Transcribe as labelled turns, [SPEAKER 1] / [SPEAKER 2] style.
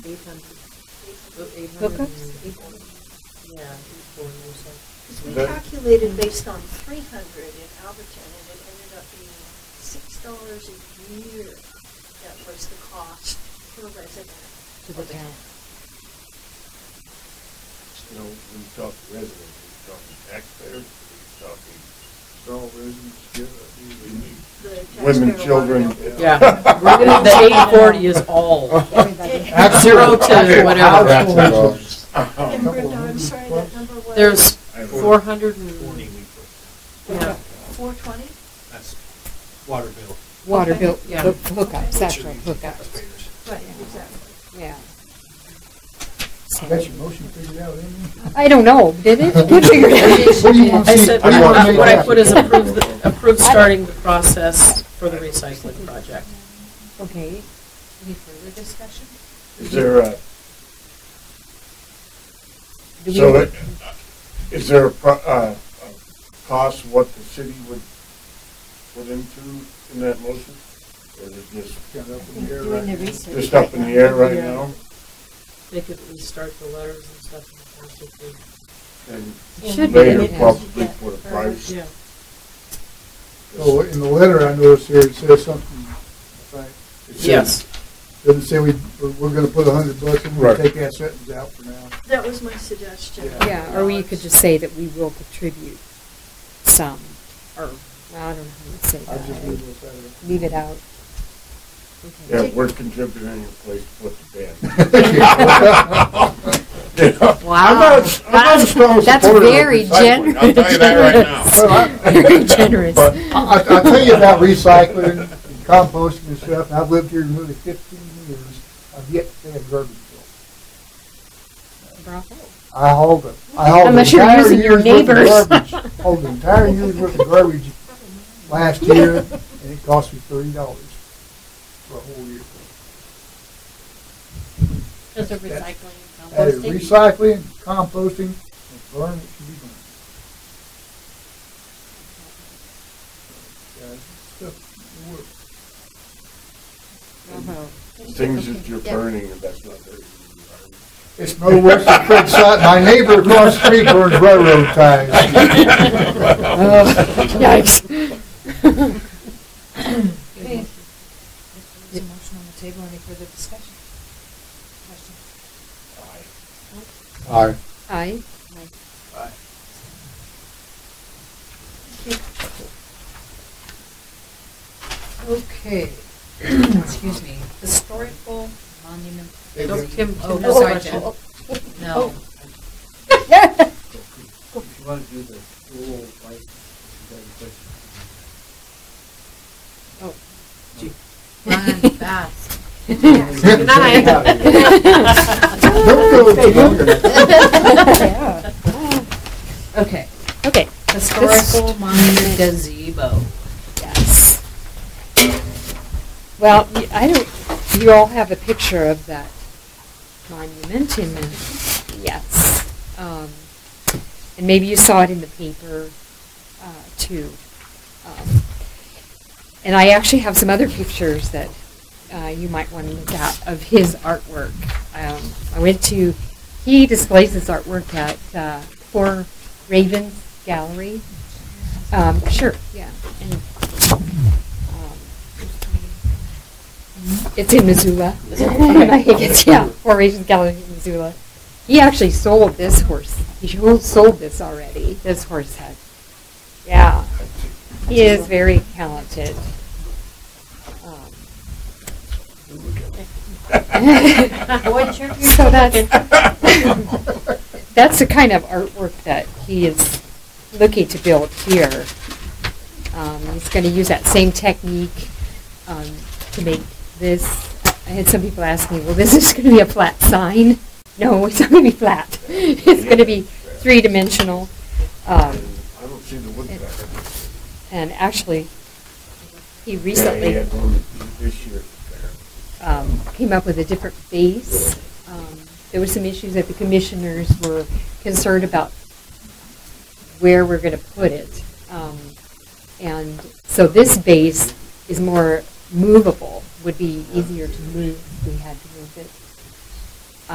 [SPEAKER 1] Eight hundred. Eight
[SPEAKER 2] Hookups?
[SPEAKER 1] hundred. Eight hundred. Yeah, eight forty or so.
[SPEAKER 3] Because we
[SPEAKER 4] That-
[SPEAKER 3] calculated based on three hundred in Alberton, and it ended up being six dollars a year. That was the cost per resident.
[SPEAKER 1] To the
[SPEAKER 3] of
[SPEAKER 1] town.
[SPEAKER 4] You know, we talk residents, we talk taxpayers, we talk all residents, yeah, we need
[SPEAKER 3] The
[SPEAKER 4] women,
[SPEAKER 3] taxpayer
[SPEAKER 4] children.
[SPEAKER 3] wanted to know.
[SPEAKER 1] Yeah, we're gonna, the eight forty is all.
[SPEAKER 3] Everybody.
[SPEAKER 1] Zero to
[SPEAKER 4] Okay,
[SPEAKER 1] whatever.
[SPEAKER 4] households.
[SPEAKER 3] And Brenda, I'm sorry, that number was?
[SPEAKER 1] There's
[SPEAKER 4] I don't know.
[SPEAKER 1] four hundred
[SPEAKER 5] Forty
[SPEAKER 1] and,
[SPEAKER 5] we put,
[SPEAKER 1] yeah,
[SPEAKER 3] Four twenty?
[SPEAKER 5] that's water bill.
[SPEAKER 2] Water bill,
[SPEAKER 1] Yeah.
[SPEAKER 2] hook- hookups, that's
[SPEAKER 5] Should
[SPEAKER 2] right,
[SPEAKER 5] be
[SPEAKER 2] hookups,
[SPEAKER 5] taxpayers.
[SPEAKER 3] Right, exactly.
[SPEAKER 2] yeah.
[SPEAKER 6] Got your motion figured out, didn't
[SPEAKER 2] I don't know, did it? Did figure it
[SPEAKER 6] What do you want
[SPEAKER 1] I
[SPEAKER 6] to see?
[SPEAKER 1] said,
[SPEAKER 6] What do you want to make
[SPEAKER 1] what I
[SPEAKER 6] happen?
[SPEAKER 1] put is approve, the- approve starting the process for the recycling project.
[SPEAKER 2] Okay, any further discussion?
[SPEAKER 4] Is there a,
[SPEAKER 2] Do
[SPEAKER 4] so
[SPEAKER 2] we-
[SPEAKER 4] it- is there a, pro- uh, a cost what the city would put into in that motion? Or is it just,
[SPEAKER 6] you? Got up in the air
[SPEAKER 2] Doing the
[SPEAKER 6] right now.
[SPEAKER 2] research.
[SPEAKER 4] just up in the air right
[SPEAKER 1] Yeah.
[SPEAKER 4] now?
[SPEAKER 1] They could restart the letters and stuff in the past if they-
[SPEAKER 4] And
[SPEAKER 2] Should be.
[SPEAKER 4] later
[SPEAKER 2] in it.
[SPEAKER 4] probably put a price.
[SPEAKER 1] Yeah,
[SPEAKER 6] So Oh, in the letter, I noticed here, it says something, right,
[SPEAKER 4] It says-
[SPEAKER 1] yes,
[SPEAKER 6] doesn't say we, we're- we're gonna put a hundred bucks, and we'll
[SPEAKER 4] Right.
[SPEAKER 6] take that sentence out for now.
[SPEAKER 3] That was my suggestion.
[SPEAKER 6] Yeah.
[SPEAKER 2] Yeah, or we could just say that we will contribute some, or, I don't know how to say
[SPEAKER 6] I just
[SPEAKER 2] that.
[SPEAKER 6] leave it at
[SPEAKER 2] Leave it out.
[SPEAKER 4] Yeah,
[SPEAKER 2] Okay.
[SPEAKER 4] we're contributing in your place to put the band.
[SPEAKER 2] Wow.
[SPEAKER 4] I'm not, I'm not a strong
[SPEAKER 2] That's
[SPEAKER 4] supporter of
[SPEAKER 2] very
[SPEAKER 4] recycling,
[SPEAKER 2] gen-
[SPEAKER 4] I'll tell you that right now.
[SPEAKER 2] Very generous.
[SPEAKER 4] But-
[SPEAKER 6] that. I, I I'll tell you about recycling and composting and stuff, and I've lived here nearly fifteen years, I've yet to pay a garbage bill.
[SPEAKER 2] Bravo.
[SPEAKER 6] I hauled it, I hauled the
[SPEAKER 2] Unless you're
[SPEAKER 6] entire
[SPEAKER 2] using your
[SPEAKER 6] year's worth
[SPEAKER 2] neighbors.
[SPEAKER 6] of garbage, hauled the entire year's worth of garbage last year, and it cost me thirty dollars for a whole year.
[SPEAKER 7] Those are
[SPEAKER 6] That's-
[SPEAKER 7] recycling,
[SPEAKER 6] That is
[SPEAKER 7] composting.
[SPEAKER 6] recycling, composting, and burn what should be burned. Yeah, it's tough work.
[SPEAKER 2] Bravo.
[SPEAKER 4] Things that you're
[SPEAKER 2] Uh-huh. Yeah.
[SPEAKER 4] burning, and that's not very.
[SPEAKER 6] It's no worse than Fred Sutton, my neighbor across the street burns railroad ties.
[SPEAKER 2] Oh, Yikes.
[SPEAKER 7] Okay. There's a motion on the table, any further discussion? Question?
[SPEAKER 6] Aye.
[SPEAKER 2] Aye.
[SPEAKER 7] Okay, excuse me, historical monument,
[SPEAKER 1] no, Kim,
[SPEAKER 7] oh,
[SPEAKER 1] Kim,
[SPEAKER 7] sorry,
[SPEAKER 1] has a
[SPEAKER 7] Jen,
[SPEAKER 1] question.
[SPEAKER 7] no.
[SPEAKER 2] Oh.
[SPEAKER 5] If you want to do the rural license, you got a question.
[SPEAKER 2] Oh.
[SPEAKER 7] Run fast.
[SPEAKER 2] Good night.
[SPEAKER 6] Don't go too long.
[SPEAKER 2] Yeah.
[SPEAKER 7] Okay,
[SPEAKER 2] Okay,
[SPEAKER 7] historical monument gazebo.
[SPEAKER 2] yes. Well, y- I don't, you all have a picture of that monument in the, yes. Um, And maybe you saw it in the paper, uh, too. Um, And I actually have some other pictures that uh, you might want to look at of his artwork. Um, I went to, he displays his artwork at uh, Four Ravens Gallery. Um, Sure, yeah. and, um, It's in Missoula. I think it's, yeah, Four Ravens Gallery in Missoula. He actually sold this horse. He sold this already, this horse head. Yeah. He is very talented. Um, So that's, that's the kind of artwork that he is looking to build here. Um, he's going to use that same technique um, to make this. I had some people ask me, well, this is going to be a flat sign. No, it's not going to be flat. It's going to be three-dimensional.
[SPEAKER 4] I
[SPEAKER 2] Um,
[SPEAKER 4] don't see the wood back.
[SPEAKER 2] and actually, he
[SPEAKER 4] Yeah, he
[SPEAKER 2] recently
[SPEAKER 4] had one this year.
[SPEAKER 2] um, came up with a different base. Um, There were some issues that the commissioners were concerned about where we're going to put it. Um, And so this base is more movable, would be easier to move. if We had to move it.